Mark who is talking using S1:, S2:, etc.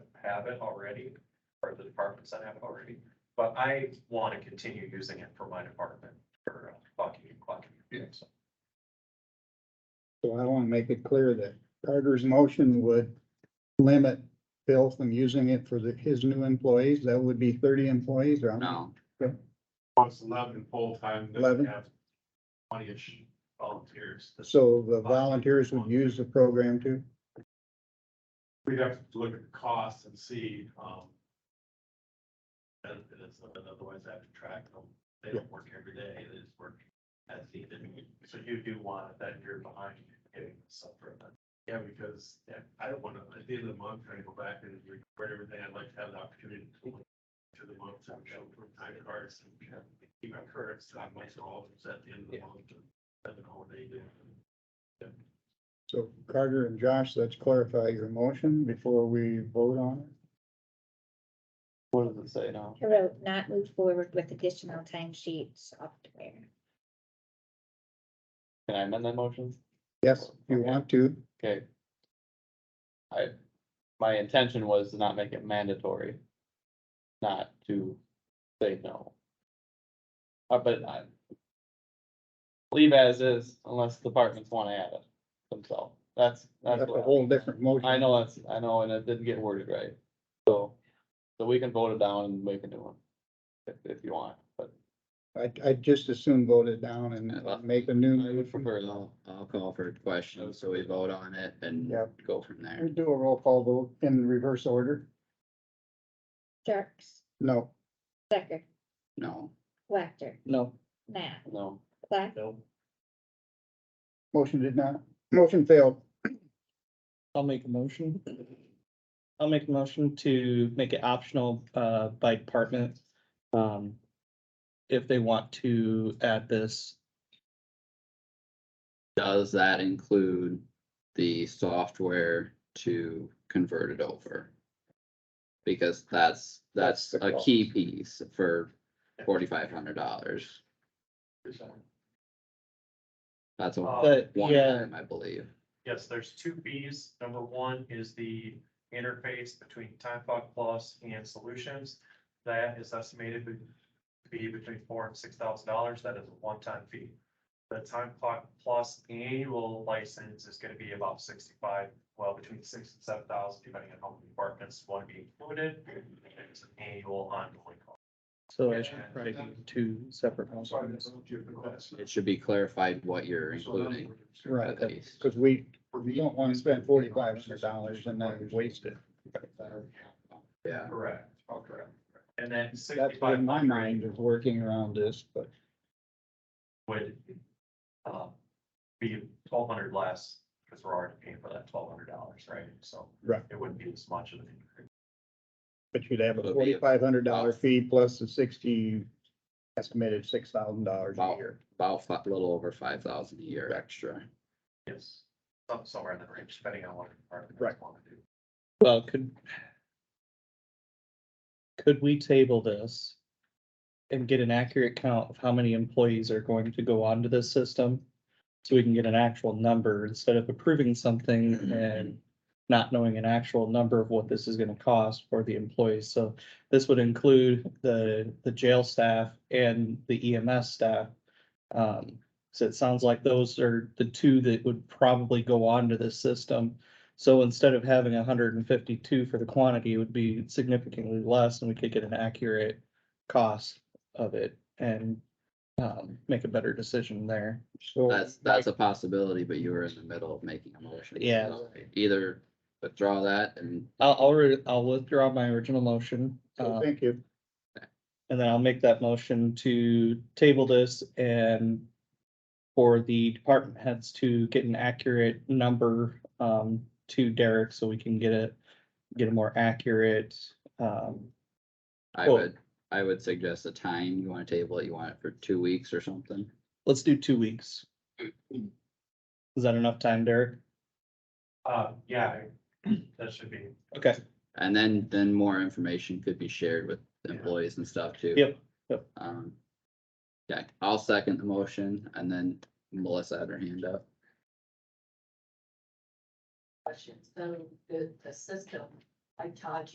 S1: have it already, or the departments that have it already. But I want to continue using it for my department for uh, clocking and clocking.
S2: Yes.
S3: So I want to make it clear that Carter's motion would limit Bill from using it for the, his new employees. That would be thirty employees or
S4: No,
S5: Once eleven full-time, then
S3: 11?
S5: we have twenty-ish volunteers.
S3: so the volunteers would use the program too.
S5: We'd have to look at the costs and see, um. And and it's, and otherwise I have to track them. They don't work every day. They just work as needed.
S1: So you do want it that you're behind getting stuff for that.
S5: Yeah, because yeah, I don't want to, at the end of the month, try to go back and record everything. I'd like to have the opportunity to look to the month, to show from time cards and keep my current stock myself at the end of the month. And the holiday.
S3: So Carter and Josh, let's clarify your motion before we vote on it.
S4: what does it say now?
S6: I wrote not move forward with additional timesheet software.
S4: Can I amend that motion?
S3: Yes, if you want to.
S4: Okay. I, my intention was to not make it mandatory. Not to say no. Uh, but I. Leave as is unless departments wanna add it themselves. That's, that's.
S3: That's
S4: what
S3: a
S4: I-
S3: whole different motion.
S4: I know that's, I know, and it didn't get worded right. So, so we can vote it down and make a new one. If, if you want, but
S3: I, I just as soon vote it down and make a new.
S7: I would
S3: motion.
S7: prefer, I'll, I'll call for a question, so we vote on it and
S3: Yep.
S7: go from there.
S3: We Do a roll call vote in reverse order.
S6: Jerks,
S3: No,
S6: Stecker,
S7: No,
S6: Whacker,
S3: no,
S6: Nat,
S4: no,
S6: Black,
S3: motion did not, motion failed.
S8: I'll make a motion. I'll make a motion to make it optional uh by department. Um, if they want to add this,
S7: does that include the software to convert it over? Because that's,
S3: That's
S7: that's
S3: the
S7: a key piece for forty-five hundred dollars. That's a
S1: Uh,
S8: but
S7: one
S8: yeah,
S7: time, I believe.
S1: Yes, there's two fees. Number one is the interface between Time Clock Plus and Solutions. That is estimated to be between four and six thousand dollars. That is a one-time fee. The Time Clock Plus annual license is gonna be about sixty-five, well, between six and seven thousand, depending on how many departments want to be included. And It's an annual ongoing cost.
S8: so I should probably do two separate ones. on this.
S7: It should be clarified what you're including.
S3: Right,
S7: At least,
S3: because we, we don't want to spend forty-five hundred dollars and then waste it.
S7: yeah.
S1: Correct. Correct. And then
S3: That's
S1: sixty-five
S3: why my
S1: hundred
S3: mind is working around this, but
S1: would uh, be twelve hundred less, because we're already paying for that twelve hundred dollars, right? So
S3: Right.
S1: it wouldn't be as much of an increase.
S3: But you'd have
S7: Would be
S3: a
S7: a-
S3: forty-five hundred dollar fee plus the sixty, estimated six thousand dollars a
S7: Wow.
S3: year.
S7: About a little over five thousand a year extra.
S1: Yes, some- somewhere in that range, depending on what department
S3: Right.
S1: want to do.
S8: Well, could. Could we table this? And get an accurate count of how many employees are going to go onto this system? So we can get an actual number instead of approving something and not knowing an actual number of what this is gonna cost for the employees. So this would include the, the jail staff and the EMS staff. Um, so it sounds like those are the two that would probably go onto this system. So instead of having hundred and fifty-two for the quantity, it would be significantly less and we could get an accurate cost of it and um, make a better decision there.
S3: So
S7: That's, that's a possibility, but you were in the middle of making a motion.
S8: Yeah.
S7: So Either withdraw that and
S8: I'll, I'll, re- I'll withdraw my original motion.
S3: so
S8: um,
S3: thank you.
S8: And then I'll make that motion to table this and for the department heads to get an accurate number um to Derek so we can get a, get a more accurate um
S7: I
S8: Well-
S7: would, I would suggest a time. You wanna table it, you want it for two weeks or something?
S8: let's do two weeks. Is that enough time, Derek?
S1: Uh, yeah, I- that should be,
S8: Okay,
S7: And then, then more information could be shared with employees and stuff too.
S8: Yep, yep.
S7: Um, yeah, I'll second the motion and then Melissa had her hand up.
S9: questions. So the, the system, I taught you.